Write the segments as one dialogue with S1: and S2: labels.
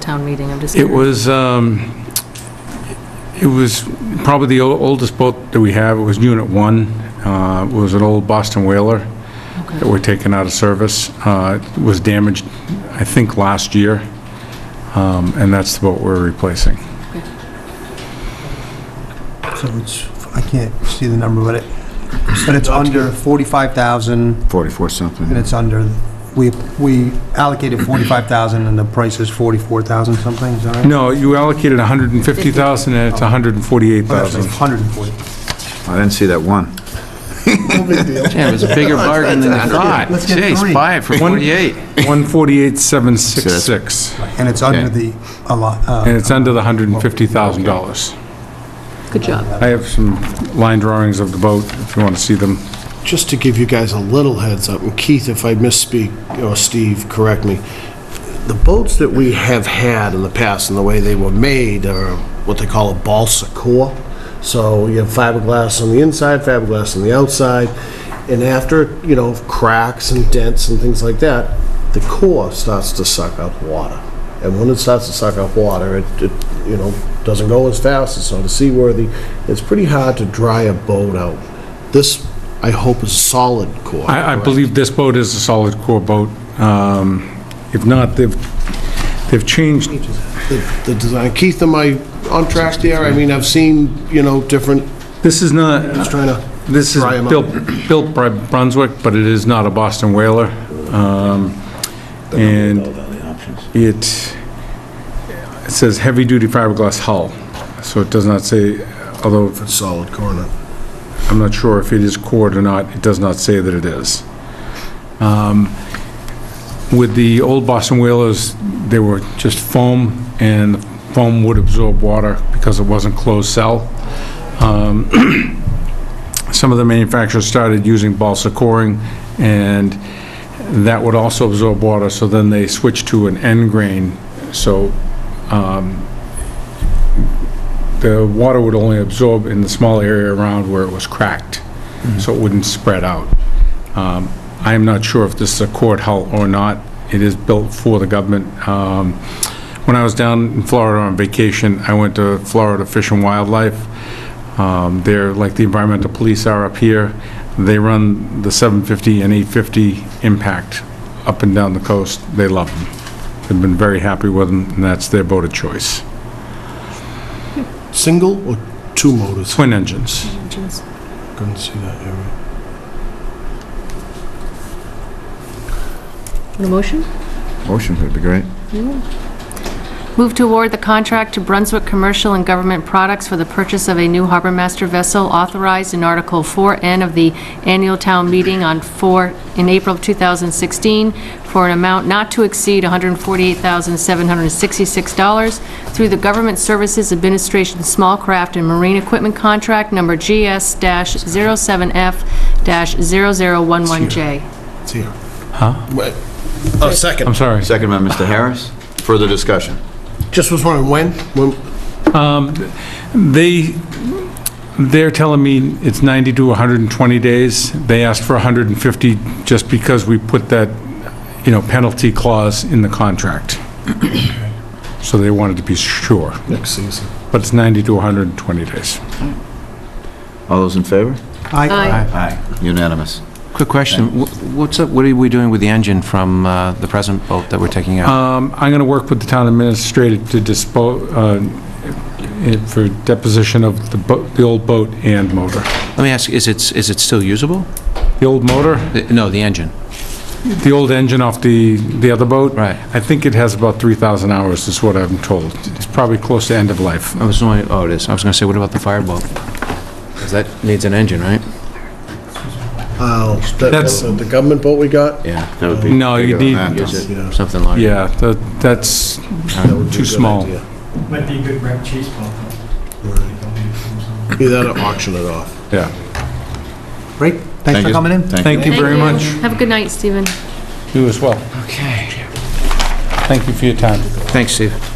S1: town meeting? I'm just
S2: It
S1: curious.
S2: was, um, it was probably the ol- oldest boat that we have. It was Unit 1. Uh, It was an old Boston Whaler that
S1: Okay.
S2: were taken out of service. Uh, It was damaged, I think, last year, Um, and that's the boat we're replacing.
S3: So it's, I can't see the number, but it, but it's under 45,000,
S4: 44 something.
S3: and it's under, we, we allocated 45,000, and the price is 44,000 something, is that right?
S2: No, you allocated 150,000 and it's
S3: Oh, that's right,
S2: 148,000.
S3: 140.
S4: I didn't see that one.
S5: Yeah, it was a bigger bargain than I thought.
S3: Let's get three.
S5: Jeez, five for
S2: One-
S5: 48.
S2: 148,766,
S3: And it's under the, a lot,
S2: and
S3: uh,
S2: it's under the $150,000.
S1: Good job.
S2: I have some line drawings of the boat, if you want to see them.
S6: Just to give you guys a little heads up, and Keith, if I misspeak, or Steve, correct me, the boats that we have had in the past and the way they were made are what they call a balsa core. So you have fiberglass on the inside, fiberglass on the outside, and after, you know, cracks and dents and things like that, the core starts to suck up water. And when it starts to suck up water, it, it, you know, doesn't go as fast, it's not as seaworthy. It's pretty hard to dry a boat out. This, I hope, is solid core.
S2: I, I
S6: correct?
S2: believe this boat is a solid core boat. Um, If not, they've, they've changed,
S6: the the design. Keith, am I on track there? I mean, I've seen, you know, different,
S2: this is not,
S6: just trying to,
S2: this is
S6: Dry 'em up.
S2: built, built by Brunswick, but it is not a Boston whaler. Um, And it, it says heavy-duty fiberglass hull, so it does not say, although
S6: solid corner.
S2: I'm not sure if it is cored or not, it does not say that it is. Um, With the old Boston whalers, they were just foam, and foam would absorb water because it wasn't closed cell. Um, Some of the manufacturers started using balsa coring, and that would also absorb water, so then they switched to an end grain, so um, the water would only absorb in the small area around where it was cracked, so it wouldn't spread out. Um, I am not sure if this is a court hull or not. It is built for the government. Um, When I was down in Florida on vacation, I went to Florida Fish and Wildlife. Um, They're like the environmental police are up here. They run the 750 and 850 impact up and down the coast. They love them. They've been very happy with them, and that's their boat of choice.
S6: Single or two motors?
S2: Twin engines.
S1: Engines.
S6: Couldn't see that area.
S1: Want a motion?
S4: Motion would be great.
S1: Move to award the contract to Brunswick Commercial and Government Products for the purchase of a new harbor master vessel authorized in Article 4N of the annual town meeting on 4, in April of 2016, for an amount not to exceed $148,766 through the Government Services Administration Small Craft and Marine Equipment Contract Number GS-07F-0011J.
S6: It's here. Huh? A
S2: I'm
S6: Oh, second.
S2: sorry.
S4: Second by Mr. Harris. Further discussion?
S6: Just was wondering, when? When?
S2: They, they're telling me it's 90 to 120 days. They asked for 150 just because we put that, you know, penalty clause in the contract. So they wanted to be sure,
S6: Next season.
S2: but it's 90 to 120 days.
S4: All those in favor?
S3: I,
S4: Aye. Unanimous.
S5: Quick question, wh- what's up, what are we doing with the engine from uh, the present boat that we're taking out?
S2: Um, I'm going to work with the town administrator to dispose, for deposition of the boat, the old boat and motor.
S5: Let me ask, is it, is it still usable?
S2: The old motor,
S5: The- No, the engine.
S2: the old engine off the, the other boat.
S5: Right.
S2: I think it has about 3,000 hours, is what I'm told. It's probably close to end of life.
S5: I was wondering, oh, it is, I was going to say, what about the fireboat? Because that needs an engine, right?
S6: Oh,
S2: That's-
S6: that's the government boat we got?
S5: Yeah, Mm.
S4: That would be
S2: No, you
S4: bigger
S2: need,
S4: than that.
S6: Yeah.
S5: something larger.
S2: yeah, that- that's
S6: That would be a
S2: too
S6: good
S2: small.
S6: idea.
S7: Might be a good red cheese pump.
S6: Be that or auction it off.
S2: Yeah.
S3: great, thanks for
S4: you.
S3: coming in.
S4: Thank
S2: Thank
S4: you.
S2: you very much.
S1: Have a good night, Stephen.
S2: You as well.
S5: Okay.
S2: Thank you for your time.
S5: Thanks, Steve.
S4: Okay,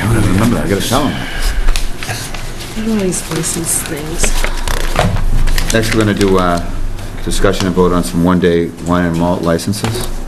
S4: I'm gonna remember that. I gotta tell him.
S1: Always voices things.
S4: uh, Next, we're gonna do a discussion and vote on some one-day wine and malt licenses.